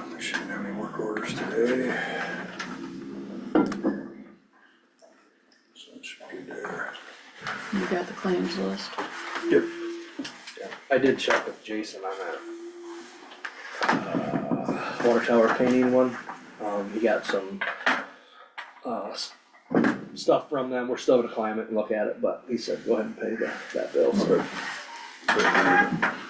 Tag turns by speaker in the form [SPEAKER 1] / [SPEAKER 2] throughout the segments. [SPEAKER 1] have any work orders today? So it should be there.
[SPEAKER 2] You got the claims list.
[SPEAKER 1] Yep.
[SPEAKER 3] I did check with Jason on that. uh, Water tower painting one, um, he got some, uh, s- stuff from them, we're still gonna climb it and look at it, but he said, go ahead and pay that, that bill, so.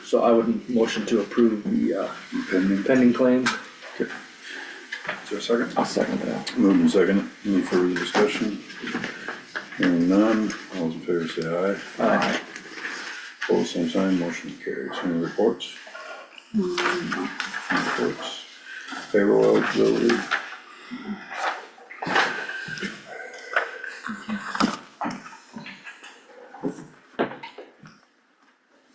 [SPEAKER 3] So I would motion to approve the, uh,
[SPEAKER 1] Pending. Is
[SPEAKER 3] pending claims.
[SPEAKER 1] there a second?
[SPEAKER 4] I'll second that.
[SPEAKER 1] Moved and second. Any further discussion? Hearing none. All those in favor say aye.
[SPEAKER 4] Aye.
[SPEAKER 1] Opposed, same sign. Motion carries. Any reports? Any Reports. Payroll eligibility.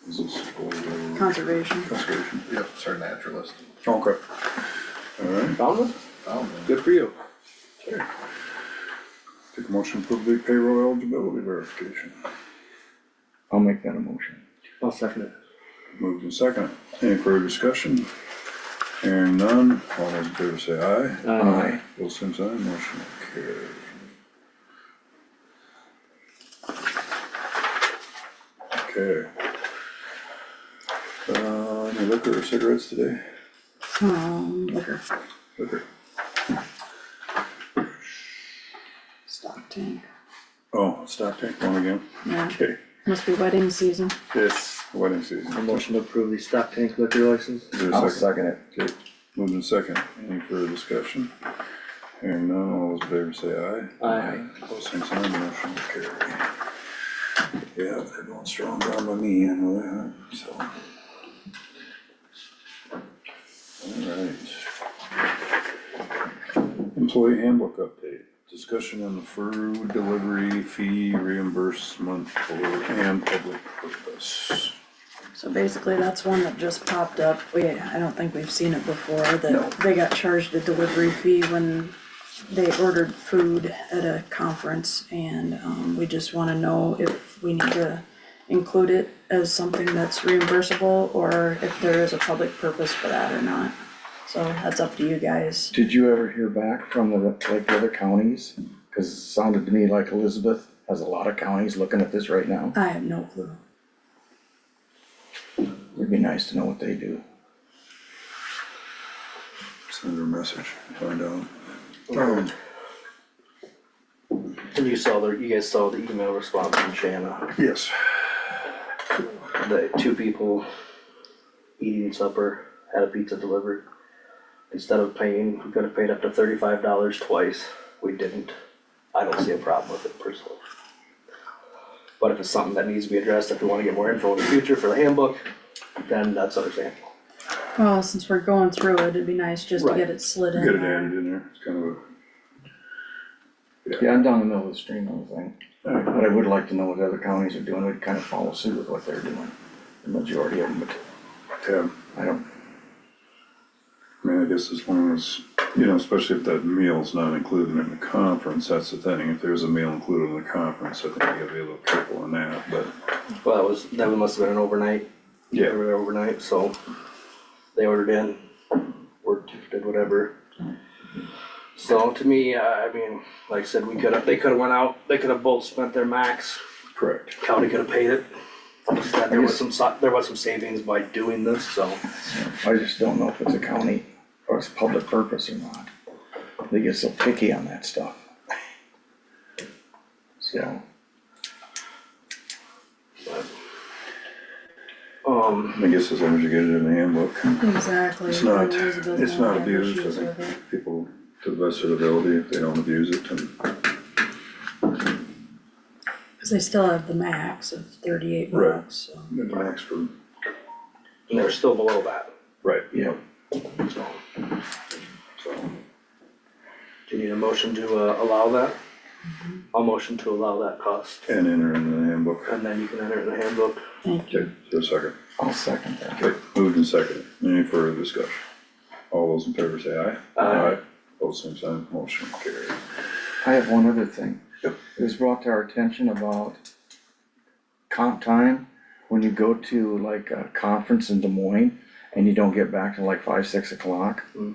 [SPEAKER 1] Is this for- uh,
[SPEAKER 2] Conservation.
[SPEAKER 1] Conservation.
[SPEAKER 5] Yep, it's our naturalist.
[SPEAKER 1] Okay. Alright,
[SPEAKER 3] Found one?
[SPEAKER 5] Oh, man.
[SPEAKER 3] Good for you.
[SPEAKER 1] take a motion to approve the payroll eligibility verification.
[SPEAKER 4] I'll make that a motion.
[SPEAKER 3] I'll second it.
[SPEAKER 1] Moved and second. Any further discussion? Hearing none, all those in favor say aye.
[SPEAKER 3] Uh,
[SPEAKER 1] Both same sign, motion carried. Okay. Uh, any liquor or cigarettes today?
[SPEAKER 2] Um, liquor,
[SPEAKER 1] Liquor.
[SPEAKER 2] stock tank.
[SPEAKER 1] Oh, stock tank one again?
[SPEAKER 2] Yeah,
[SPEAKER 1] Okay,
[SPEAKER 2] must be wedding season.
[SPEAKER 1] yes, wedding season.
[SPEAKER 3] A motion to approve the stock tank liquor license.
[SPEAKER 1] Is there a
[SPEAKER 4] I'll
[SPEAKER 1] second?
[SPEAKER 4] second it.
[SPEAKER 1] Okay, moved in second, any further discussion? Hearing none, all those in favor say aye.
[SPEAKER 3] Aye.
[SPEAKER 1] Opposed, same sign, motion carried. Yeah, they're going strong down by me, I know that, so. Alright. Employee handbook update, discussion on the food delivery fee reimbursement for and public purpose.
[SPEAKER 2] So basically, that's one that just popped up. We, I don't think we've seen it before, that they got charged a delivery fee when they ordered food at a conference, and, um, we just wanna know if we need to include it as something that's reimbursable, or if there is a public purpose for that or not. So that's up to you guys.
[SPEAKER 4] Did you ever hear back from the, like, the other counties? Cause it sounded to me like Elizabeth has a lot of counties looking at this right now.
[SPEAKER 2] I have no clue.
[SPEAKER 4] It'd be nice to know what they do.
[SPEAKER 1] Send her a message, find out. Um,
[SPEAKER 3] And you saw the, you guys saw the email response from Shanna.
[SPEAKER 1] Yes.
[SPEAKER 3] the two people eating supper had a pizza delivered. Instead of paying, we could have paid up to thirty-five dollars twice, we didn't. I don't see a problem with it personally. But if it's something that needs to be addressed, if we wanna get more info in the future for the handbook, then that's understandable.
[SPEAKER 2] Well, Oh, since we're going through it, it'd be nice just to
[SPEAKER 3] Right.
[SPEAKER 2] get it slid in
[SPEAKER 1] Get it
[SPEAKER 2] there.
[SPEAKER 1] added in there, it's kind of a.
[SPEAKER 4] Yeah, I'm down the middle of the stream on the thing,
[SPEAKER 1] Alright,
[SPEAKER 4] but I would like to know what other counties are doing. We'd kind of follow suit with what they're doing, the majority of them, but
[SPEAKER 1] yeah,
[SPEAKER 4] I don't,
[SPEAKER 1] I mean, I guess as long as, you know, especially if that meal's not included in the conference, that's the thing, if there's a meal included in the conference, I think you gotta be a little careful on that, but.
[SPEAKER 3] Well, that was, that must have been an overnight, they
[SPEAKER 1] Yeah,
[SPEAKER 3] were there overnight, so they ordered in, worked, did whatever. So to me, uh, I I mean, like I said, we could have, they could have went out, they could have both spent their max,
[SPEAKER 1] correct,
[SPEAKER 3] county could have paid it. Instead, There was some, so- there was some savings by doing this, so.
[SPEAKER 4] I just don't know if it's a county or it's public purpose or not. They get so picky on that stuff. So,
[SPEAKER 3] Um,
[SPEAKER 1] I guess as long as you get it in the handbook,
[SPEAKER 2] Exactly.
[SPEAKER 1] it's not,
[SPEAKER 2] Elizabeth doesn't
[SPEAKER 1] it's not
[SPEAKER 2] have
[SPEAKER 1] abused,
[SPEAKER 2] issues
[SPEAKER 1] I
[SPEAKER 2] with it.
[SPEAKER 1] think, people, to the best of their ability, if they don't abuse it, then.
[SPEAKER 2] Cause they still have the max of thirty-eight
[SPEAKER 1] Right.
[SPEAKER 2] bucks, so.
[SPEAKER 1] then the max for.
[SPEAKER 3] and they're still below that,
[SPEAKER 1] Right.
[SPEAKER 4] yeah,
[SPEAKER 3] so.
[SPEAKER 1] So,
[SPEAKER 3] Do you need a motion to uh, allow that? I'll motion to allow that cost,
[SPEAKER 1] and enter in the handbook,
[SPEAKER 3] and then you can enter it in the handbook.
[SPEAKER 2] Thank you.
[SPEAKER 1] okay, so a second.
[SPEAKER 4] I'll second that.
[SPEAKER 1] Okay, moved and seconded. Any further discussion? All those in favor say aye.
[SPEAKER 3] Aye.
[SPEAKER 1] Both same sign, motion carried.
[SPEAKER 4] I have one other thing.
[SPEAKER 1] Yep.
[SPEAKER 4] It was brought to our attention about comp time, when you go to like a conference in Des Moines and you don't get back till like five, six o'clock.
[SPEAKER 3] Mm.